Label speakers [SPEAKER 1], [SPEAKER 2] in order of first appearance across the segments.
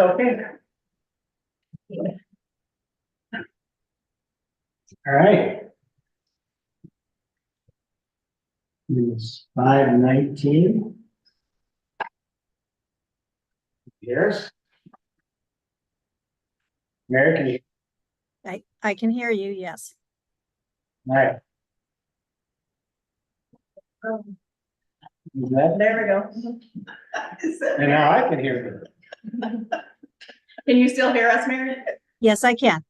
[SPEAKER 1] Okay. All right. It's five nineteen. Years. Mary, can you,
[SPEAKER 2] I, I can hear you, yes.
[SPEAKER 1] all right,
[SPEAKER 3] Um,
[SPEAKER 1] you good?
[SPEAKER 3] There we go. Is that-
[SPEAKER 1] And now I can hear you.
[SPEAKER 3] Can you still hear us, Mary?
[SPEAKER 2] Yes, I can.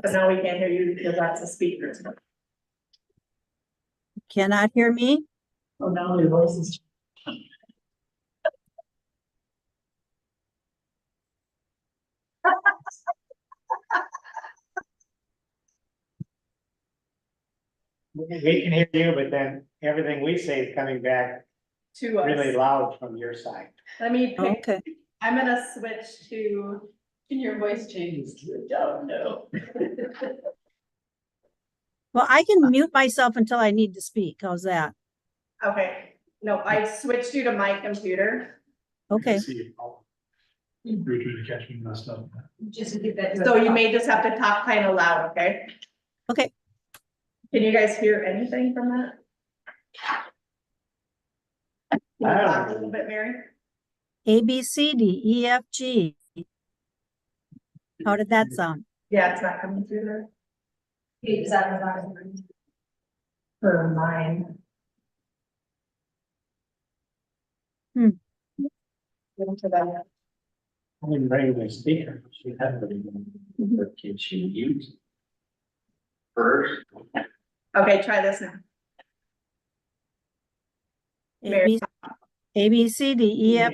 [SPEAKER 3] But now we can't hear you because that's a speaker.
[SPEAKER 2] Cannot hear me?
[SPEAKER 3] Oh, now your voice is.
[SPEAKER 1] We can hear you, but then everything we say is coming back
[SPEAKER 3] To
[SPEAKER 1] really
[SPEAKER 3] us.
[SPEAKER 1] loud from your side.
[SPEAKER 3] Let me pick,
[SPEAKER 2] Okay.
[SPEAKER 3] I'm gonna switch to, can your voice change to, don't know.
[SPEAKER 2] Well, I can mute myself until I need to speak. How's that?
[SPEAKER 3] Okay, no, I switched you to my computer.
[SPEAKER 2] Okay,
[SPEAKER 4] You're trying to catch me messed up.
[SPEAKER 5] Just give that.
[SPEAKER 3] So you may just have to talk kind of loud, okay?
[SPEAKER 2] Okay.
[SPEAKER 3] Can you guys hear anything from that? Can you talk a little bit, Mary?
[SPEAKER 2] A, B, C, D, E, F, G. How did that sound?
[SPEAKER 3] Yeah, it's not coming through there.
[SPEAKER 5] Is that the last?
[SPEAKER 3] For mine.
[SPEAKER 2] Hmm.
[SPEAKER 3] Into that.
[SPEAKER 1] I didn't bring my speaker. She had to be.
[SPEAKER 6] But can she use? First,
[SPEAKER 3] Okay, try this now.
[SPEAKER 2] A, B, A, B, C, D, E, F.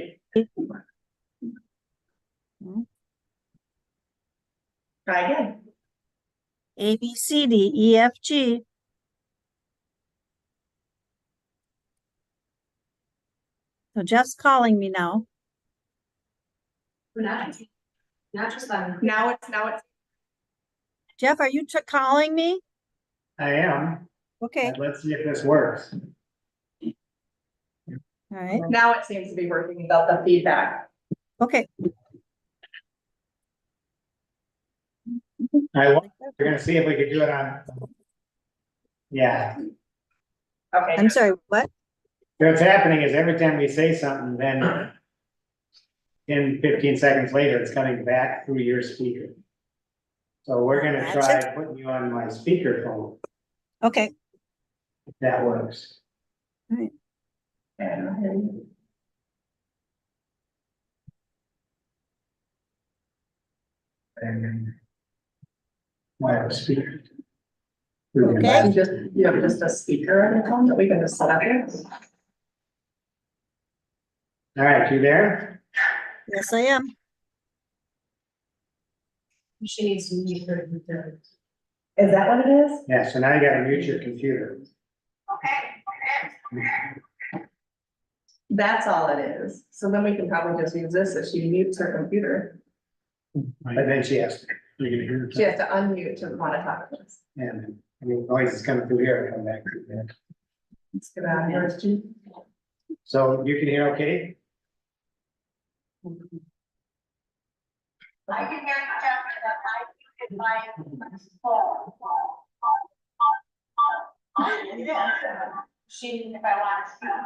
[SPEAKER 3] Try again.
[SPEAKER 2] A, B, C, D, E, F, G. So Jeff's calling me now.
[SPEAKER 5] Not, not just that.
[SPEAKER 3] Now it's, now it's,
[SPEAKER 2] Jeff, are you tr- calling me?
[SPEAKER 1] I am.
[SPEAKER 2] Okay,
[SPEAKER 1] Let's see if this works.
[SPEAKER 2] all right,
[SPEAKER 3] now it seems to be working without the feedback.
[SPEAKER 2] okay.
[SPEAKER 1] I, wa- we're gonna see if we could do it on. Yeah,
[SPEAKER 3] Okay,
[SPEAKER 2] I'm sorry, what?
[SPEAKER 1] what's happening is every time we say something, then in fifteen seconds later, it's coming back through your speaker. So we're gonna try
[SPEAKER 2] Gotcha.
[SPEAKER 1] putting you on my speakerphone,
[SPEAKER 2] Okay,
[SPEAKER 1] if that works.
[SPEAKER 3] And-
[SPEAKER 1] And I have a speaker.
[SPEAKER 2] Okay.
[SPEAKER 3] Just, you have just a speaker on your phone that we can just set up here?
[SPEAKER 1] All right, you there?
[SPEAKER 2] yes, I am.
[SPEAKER 5] She needs to meet her. with her-
[SPEAKER 3] Is that what it is?
[SPEAKER 1] Yeah, so now you gotta mute your computer.
[SPEAKER 3] That's all it is. So then we can probably just use this if she mutes her computer.
[SPEAKER 1] But then she has, to-
[SPEAKER 4] You're gonna hear. it.
[SPEAKER 3] She has to unmute to want to talk to us.
[SPEAKER 1] and, I mean, noise is coming through here and come back through there.
[SPEAKER 3] Let's get out of here.
[SPEAKER 1] So you can hear okay?
[SPEAKER 7] I can hear you, Jessica, but I muted my phone.
[SPEAKER 5] She,
[SPEAKER 7] If I want to see my.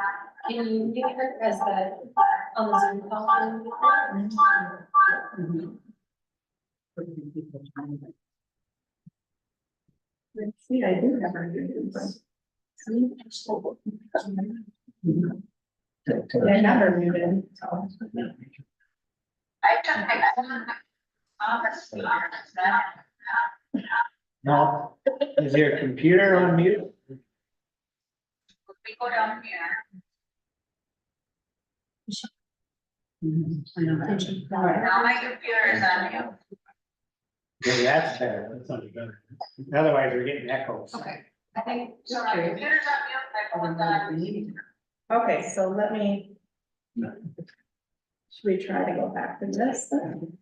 [SPEAKER 5] can you give her as the, um, on the Zoom call?
[SPEAKER 3] Let's see, I do have her muted. I have her muted.
[SPEAKER 7] I took my. Honestly,
[SPEAKER 1] No, is your computer on mute?
[SPEAKER 7] we go down here. Now my computer is on you.
[SPEAKER 1] Yeah, that's better.
[SPEAKER 4] That sounded better.
[SPEAKER 1] Otherwise, we're getting echoes.
[SPEAKER 5] Okay.
[SPEAKER 7] I think, so my computer's on you, my phone's on.
[SPEAKER 3] Okay, so let me. Should we try to go back to this then?